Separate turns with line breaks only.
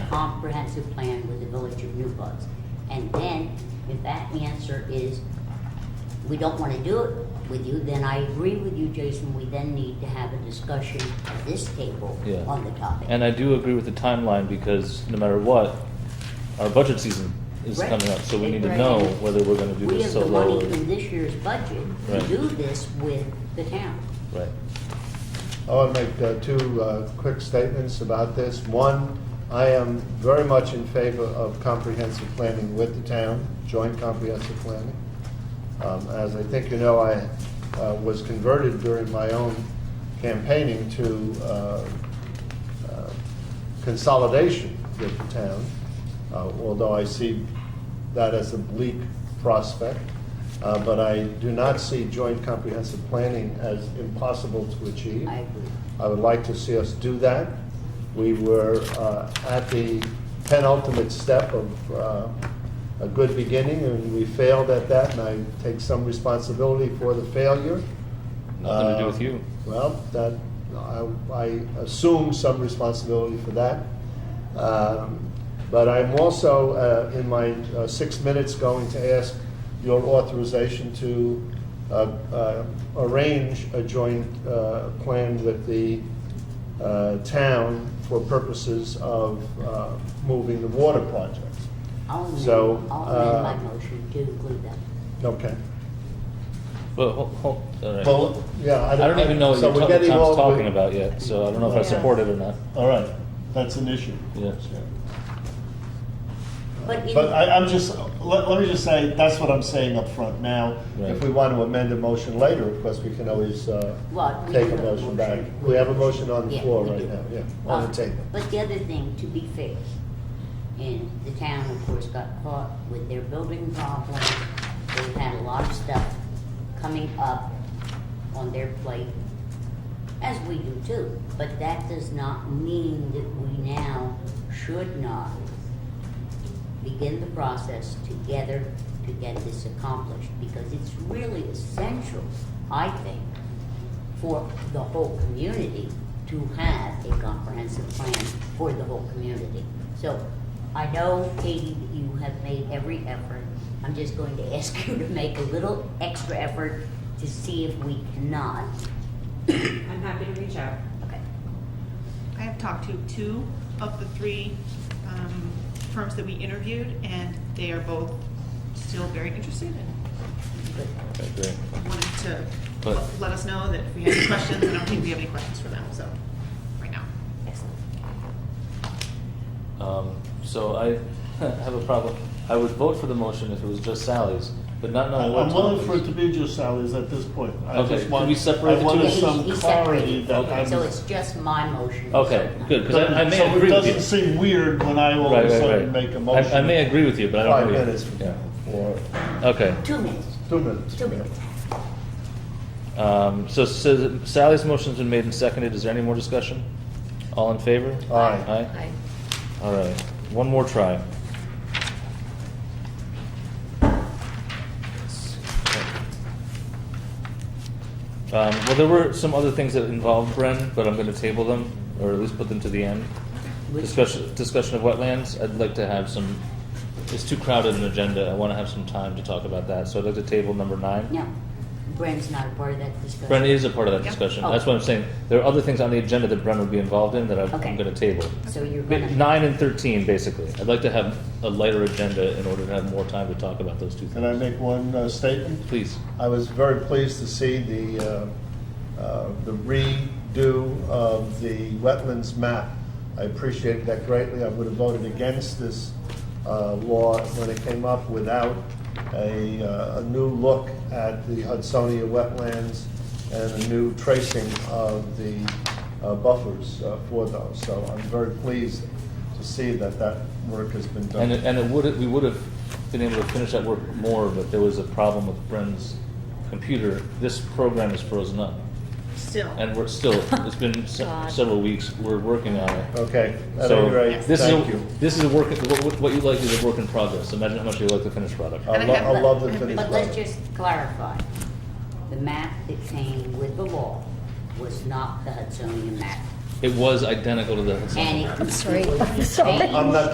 comprehensive plan with the village of New Paltz. And then, if that answer is, we don't wanna do it with you, then I agree with you, Jason, we then need to have a discussion at this table
Yeah.
on the topic.
And I do agree with the timeline because no matter what, our budget season is
Right.
coming up, so we need to
Right.
know whether we're gonna do
We
this
have
so
the
low.
money
or-
in this year's budget to
Right.
do this with the town.
Right.
I want to make uh, two uh, quick statements about this. One, I am very much in favor of comprehensive planning with the town, joint comprehensive planning. Um, As I think you know, I uh, was converted during my own campaigning to uh, uh, consolidation with the town, uh, although I see that as a bleak prospect. Uh, But I do not see joint comprehensive planning as impossible to achieve.
I agree.
I would like to see us do that. We were uh, at the penultimate step of uh, a good beginning, and we failed at that, and I take some responsibility for the failure.
Nothing to do
Uh,
with you.
Well, that, I, I assume some responsibility for that. Um, But I'm also, uh, in my uh, six minutes, going to ask your authorization to uh, uh, arrange a joint uh, plan with the uh, town for purposes of uh, moving the water project.
I'll amend,
So,
I'll amend
uh,
my motion to include that.
Okay.
But, hol- hol- all right.
Well, yeah, I
I
don't.
don't even know what
so
you're
we're
talking,
getting
Tom's
all-
talking
we're-
about yet, so I don't know if I
Yeah.
support it or not.
All right, that's an issue.
Yeah.
But in-
But I, I'm just, let, let me just say, that's what I'm saying up front now. If
Right.
we want to amend a motion later, of course, we can always, uh,
Well, we
take
have
a
a
motion
motion.
back. We have a motion on the
Yeah,
floor
we
right
do.
now, yeah, on
Uh,
the table.
But the other thing, to be fair, and the town, of course, got caught with their building problem. They've had a lot of stuff coming up on their plate, as we do too. But that does not mean that we now should not begin the process together to get this accomplished, because it's really essential, I think, for the whole community to have a comprehensive plan for the whole community. So I know, Katie, that you have made every effort. I'm just going to ask you to make a little extra effort to see if we cannot.
I'm happy to reach out.
Okay.
I have talked to two of the three um, firms that we interviewed, and they are both still very interested and
good.
Okay, great.
wanted to
But-
let us know that if we have any questions. I don't think we have any questions for them, so, right now.
Excellent.
Um, so I have a problem. I would vote for the motion if it was just Sally's, but not knowing what
I'm willing
Tom
for it
is.
to be just Sally's at this point. I
Okay,
just
can
want-
we separate the
I
two?
wanted
Yeah,
some
he's- he's
clarity
separated.
that
Okay.
I'm.
So it's just my motion.
Okay, good, because I, I may
So it
agree with you.
doesn't seem weird when I all
Right,
of a
right,
sudden
right.
make a
I, I
motion.
may agree with you, but I don't.
Five
agree.
minutes from
Yeah.
now, or
Okay.
Two minutes,
two minutes.
two minutes.
Um, so, so Sally's motion's been made and seconded. Is there any more discussion? All in favor?
Aye.
Aye. All right. One more try. Um, well, there were some other things that involved Bren, but I'm going to table them, or at least put them to the end.
Which-
Discussion, discussion of wetlands. I'd like to have some. It's too crowded an agenda. I want to have some time to talk about that. So I'd like to table number nine.
No, Bren's not a part of that discussion.
Bren is a part of that
Yeah.
discussion.
Oh.
That's what I'm saying. There are other things on the agenda that Bren would be involved in that I-
Okay.
I'm going to table.
So you're gonna.
Nine and thirteen, basically. I'd like to have a lighter agenda in order to have more time to talk about those two
Can I
things.
make one uh, statement?
Please.
I was very pleased to see the, uh, uh, the redo of the wetlands map. I appreciate that greatly. I would have voted against this uh, law when it came up without a, uh, a new look at the Hudsonia wetlands and a new tracing of the uh, buffers uh, for those. So I'm very pleased to see that that work has been done.
And it, and it would, we would have been able to finish that work more, but there was a problem with Bren's computer. This program is frozen up.
Still.
And we're still, it's been se- several weeks, we're working on it.
Okay, at
So
any rate,
this is a-
thank you.
This is a work, what, what you like is a work in progress. Imagine how much you like the finished product.
I
And I
lo-
have
I
that-
love the
I have
finished
that-
But
product.
let's just clarify, the map that came with the law was not the Hudsonia map.
It was identical to the.
And it
I'm sorry,
completely
I'm sorry.
changed.
I'm not